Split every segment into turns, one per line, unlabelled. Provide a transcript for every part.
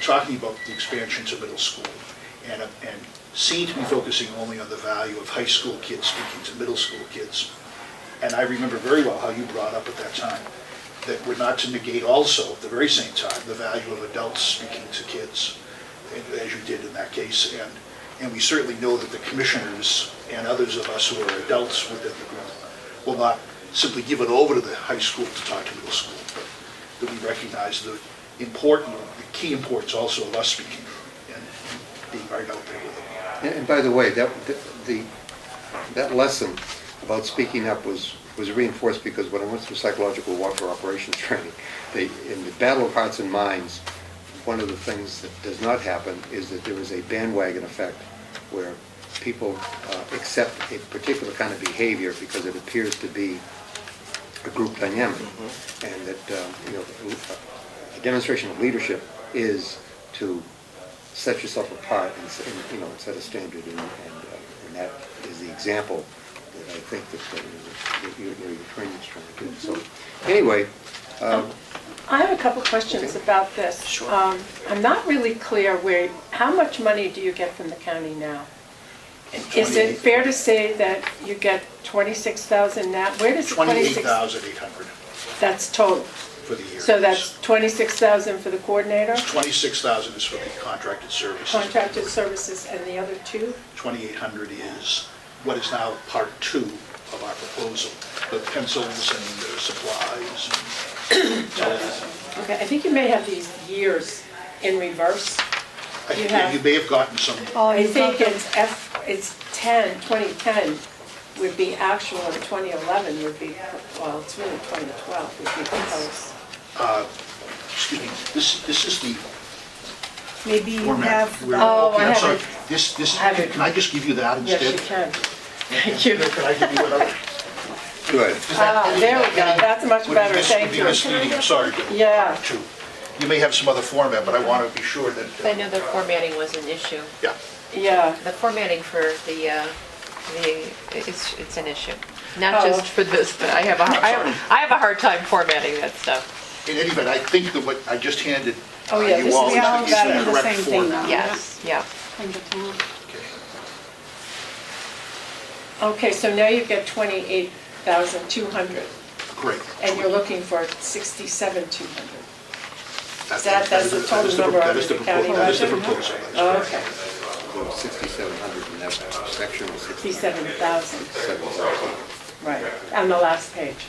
talking about the expansion to middle school and, and seemed to be focusing only on the value of high school kids speaking to middle school kids. And I remember very well how you brought up at that time that we're not to negate also, at the very same time, the value of adults speaking to kids, and- as you did in that case. And, and we certainly know that the commissioners and others of us who are adults within the group will not simply give it over to the high school to talk to middle school, but that we recognize the important, the key importance also of us speaking and being right out there with them.
And and by the way, that, the, that lesson about speaking up was, was reinforced because when I went through psychological warfare operations training, they, in the battle of hearts and minds, one of the things that does not happen is that there is a bandwagon effect where people uh, accept a particular kind of behavior because it appears to be a group dynamic. And that, um, you know, a demonstration of leadership is to set yourself apart and, s- and, you know, set a standard, and, and, uh, and that is the example that I think that, uh, that your, your your training's trying to do. So, anyway,
I have a couple questions about this. Sure. I'm not really clear where, how much money do you get from the county now? Is
28
it fair to say that you get 26,000 now? Where does the 26?
28,800
That's total.
for the year.
So that's 26,000 for the coordinator,
26,000 is for the contracted services.
contracted services, and the other two?
2,800 is what is now part two of our proposal, the pencils and the supplies. and telephone.
Okay, I think you may have these years in reverse.
I think
have-
You may have gotten some,
Oh,
I
you got
think
them.
it's F, it's 10, 2010 would be actual, and 2011 would be, well, it's really 2012 would be proposed.
excuse me, this, this is the
Maybe you
format.
have,
we're-
the-
Oh,
okay,
I
I'm
have
sorry.
it.
This, this,
I have it.
can I just give you that
Yes,
instead?
you can. Thank you.
Can I give you another?
good.
Ah, there we go, that's much
Would be
better,
mis-
thank
would be
you.
misleading, I'm sorry, Bill.
Yeah.
Two. You may have some other format, but I want to be sure that,
I know the formatting was an issue.
yeah.
Yeah,
The formatting for the, uh, the, it's, it's an issue.
Oh.
Not just for this, but I have a, I have, I have a hard time formatting that stuff.
In any event, I think that what I just handed uh,
Oh, yeah, this
you
is-
all is
we all
the- is
got
the
them the
correct
same thing
format.
now.
Yes, yeah.
From the town.
Okay.
okay, so now you get 28,200,
Great.
and you're looking for 67,200.
That's
that- that's the total number
That is the
of the county
proposal, that is the
budget?
proposal. that is correct.
Okay,
So 6,700 in that section was
67,000,
67,000.
right, on the last page.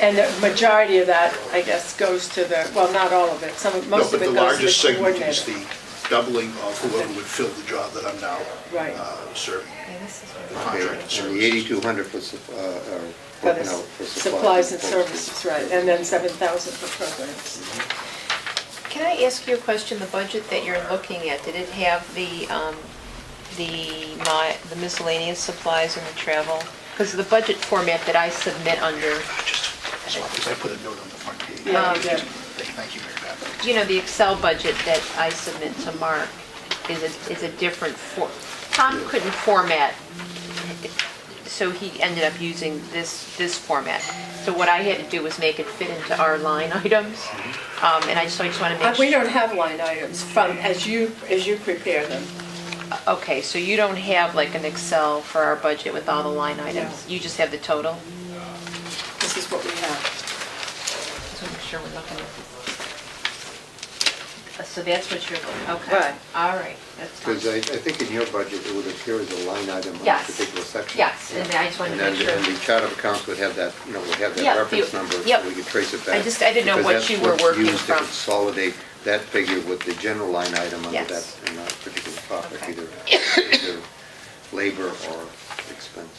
And the majority of that, I guess, goes to the, well, not all of it, some, of-
No,
most
but
of
the
it goes
largest
to the
segment is
coordinator.
the doubling of whoever would fill the job that I'm now
Right.
uh, serving,
Yeah, this is-
the
Okay,
contracted
And the
services.
8,200 for, sup- uh, are
For the
broken out for
Supplies and
services.
services, right, and then 7,000 for programs.
Can I ask you a question? The budget that you're looking at, did it have the, um, the mi- the miscellaneous supplies and the travel? Because the budget format that I submit under,
Just as long as I put a note on the front page.
Yeah, you did.
Thank you, Mary Beth.
you know, the Excel budget that I submit to Mark is a, is a different for, Tom couldn't format, so he ended up using this, this format. So what I had to do was make it fit into our line items, um, and I just, so I just want to
Uh,
make sure.
We don't have line items from, as you, as you prepare them.
Okay, so you don't have like an Excel for our budget with all the line items? You just have the total?
This is what we have.
Just want to make sure we're looking at this. So that's what you're, okay.
Right.
All right, that's fine.
Because I, I think in your budget, it would appear as a line item on a
Yes.
particular section.
Yes, and I just wanted to
And
make
then- And
sure.
the chart of accounts would have that, you know, would have
Yeah,
that
the-
reference number, so
yep.
we could trace it back.
I just- I didn't know
because
what
that's
you were
what's
working
used to
from.
consolidate that figure with the general line item under
Yes.
that, in that particular topic,
Okay.
either, either labor or expense.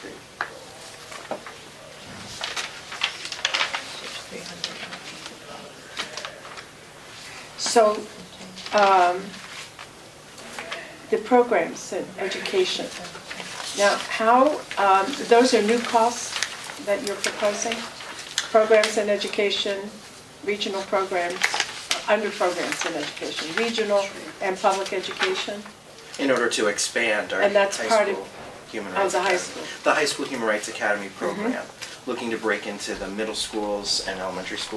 Okay.
So um, the programs in education. Now, how, um, those are new costs that you're proposing? Programs in education, regional programs, under programs in education, regional and public education?
in order to expand our
And that's
high
part of-
school human
of
rights
the high
academy.
school. Mm-hmm.
The high school human rights academy program, looking to break into the middle schools and elementary schools.